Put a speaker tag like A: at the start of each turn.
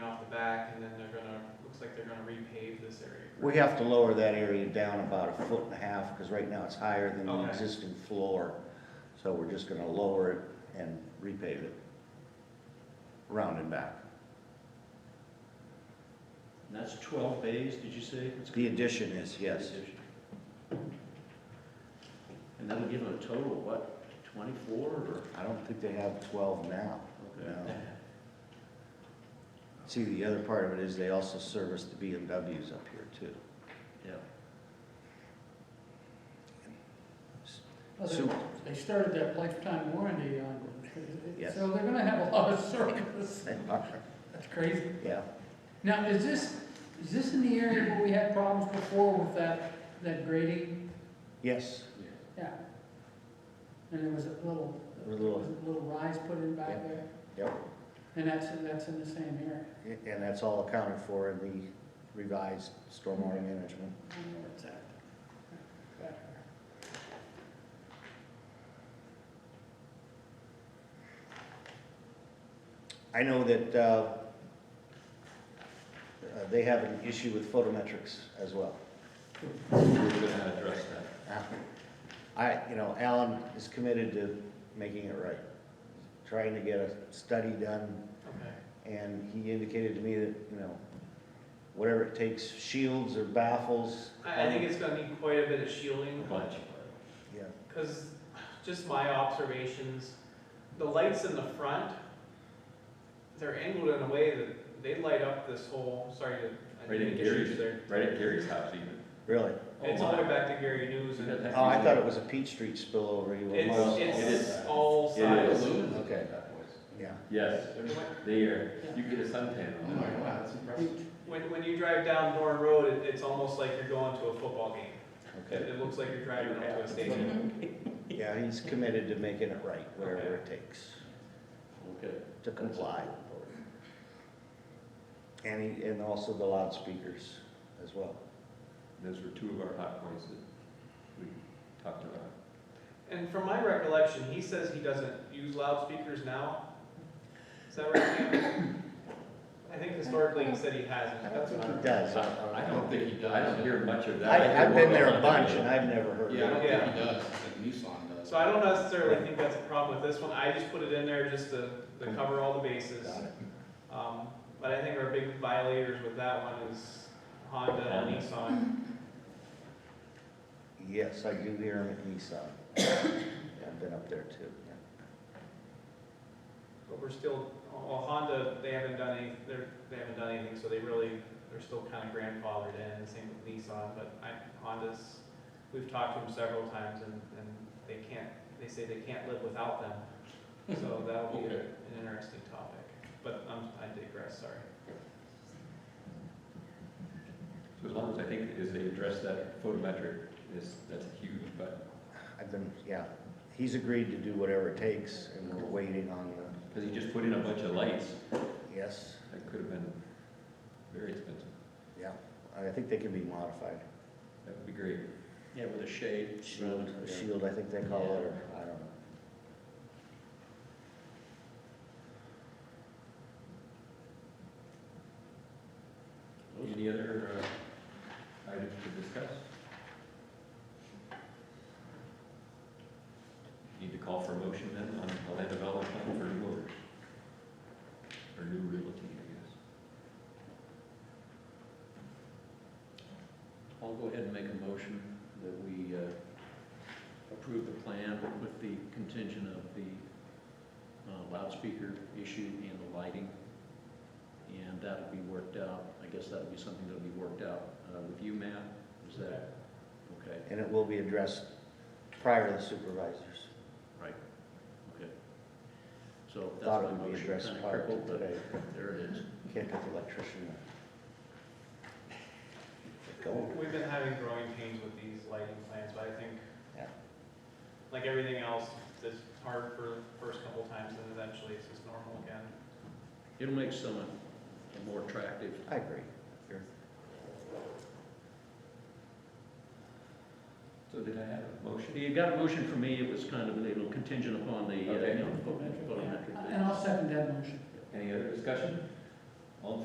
A: they're gonna repave this area.
B: We have to lower that area down about a foot and a half, because right now it's higher than the
A: Okay.
B: existing floor. So we're just gonna lower it and repave it, round and back.
C: And that's twelve bays, did you say? It's
B: The addition is, yes,
C: And that'll give them a total, of what, twenty-four or?
B: I don't think they have twelve now,
C: Okay.
B: no. See, the other part of it is they also service the BMWs up here too.
C: Yeah.
D: Well,
B: So-
D: they- They started that lifetime warranty on,
B: Yes.
D: so they're gonna have a lot of service.
B: They are,
D: That's crazy.
B: Yeah,
D: Now, is this, is this in the area where we had problems before with that, that grading?
B: yes,
D: Yeah. And there was a little,
B: A little-
D: was a little rise put in back
B: Yeah.
D: there?
B: yep,
D: And that's, that's in the same area?
B: and that's all accounted for in the revised stormwater management.
D: I don't know where it's at. Back there.
B: I know that, uh, uh, they have an issue with photometrics as well.
E: We're gonna address that.
B: I, you know, Alan is committed to making it right, trying to get a study done,
A: Okay,
B: and he indicated to me that, you know, whatever it takes, shields or baffles.
A: I, I think it's gonna need quite a bit of shielding, but,
B: Yeah,
A: cause just my observations, the lights in the front, they're angled in a way that they light up this whole, sorry to, I
E: Right
A: didn't
E: at
A: get you
E: Gary's,
A: there.
E: right at Gary's Oh house even.
B: really?
A: It's all the way back to Gary News and it's,
B: Oh, I thought it was a Peach Street spillover. You were miles off.
A: it's all
E: It is.
A: sides.
B: Okay. Yeah,
E: Yes, they are, you get a suntan on that.
B: Oh,
F: wow, that's impressive.
A: When, when you drive down Norton Road, it, it's almost like you're going to a football game. It,
B: okay.
A: it looks like you're driving up to a stadium.
B: Yeah, he's committed to making it right, wherever it takes,
C: Okay.
B: to comply. And he, and also the loudspeakers as well.
E: Those were two of our hot points that we talked about.
A: And from my recollection, he says he doesn't use loudspeakers now. Is that right, Cam? I think historically he said he hasn't.
B: I don't think
A: what
B: he
A: I-
B: does.
F: I don't think he does.
E: I don't hear much of that.
B: I, I've been there a
E: Yeah.
B: bunch and I've never heard
F: Yeah,
B: it.
F: I don't think he does, like Newsong does.
A: So I don't necessarily think that's a problem with this one. I just put it in there just to, to cover all the bases.
B: Got it.
A: Um, but I think our big violators with that one is Honda and Nissan.
B: Yes, I do hear him at Nissan. I've been up there too.
A: But we're still, well, Honda, they haven't done any, they're, they haven't done anything, so they really, they're still kind of grandfathered in, the same with Nissan, but I, Honda's, we've talked to them several times and, and they can't, they say they can't live without them. So that'll be a-
F: Okay.
A: an interesting topic, but um, I digress, sorry.
E: So as long as I think as they address that photometric, is, that's huge, but,
B: I've been, yeah, he's agreed to do whatever it takes and we're waiting on the,
E: because he just put in a bunch of lights,
B: yes,
E: that could have been very expensive.
B: yeah. I think they can be modified.
E: That would be great.
C: Yeah, with a shade.
B: Shield, a shield, I think they call it, or, I don't know.
E: Any other uh, items to discuss? Need to call for a motion then on the land development plan for new owners? Or new realty, I
C: I'll go ahead and make a motion that we uh, approve the plan with the contingent of the uh, loudspeaker issue and the lighting. And that'll be worked out, I guess that'll be something that'll be worked out uh, with you, Matt, is that, okay,
B: And it will be addressed prior to the supervisors.
C: okay. So that's
B: Thought
C: my
B: it would be
C: motion,
B: addressed
C: kind of
B: prior to
C: crippled, but
B: today.
C: there it is.
B: Can't get the electrician to go.
A: We've been having growing pains with these lighting plans, but I think,
B: Yeah.
A: like everything else, it's hard for the first couple times and eventually it's just normal again.
C: It'll make someone more attractive.
B: I agree.
E: guess. So did I have a motion?
C: You got a motion from me, it was kind of a little contingent upon the, uh,
E: Okay.
C: you know, photometric.
D: And I'll second that motion.
E: Any other discussion?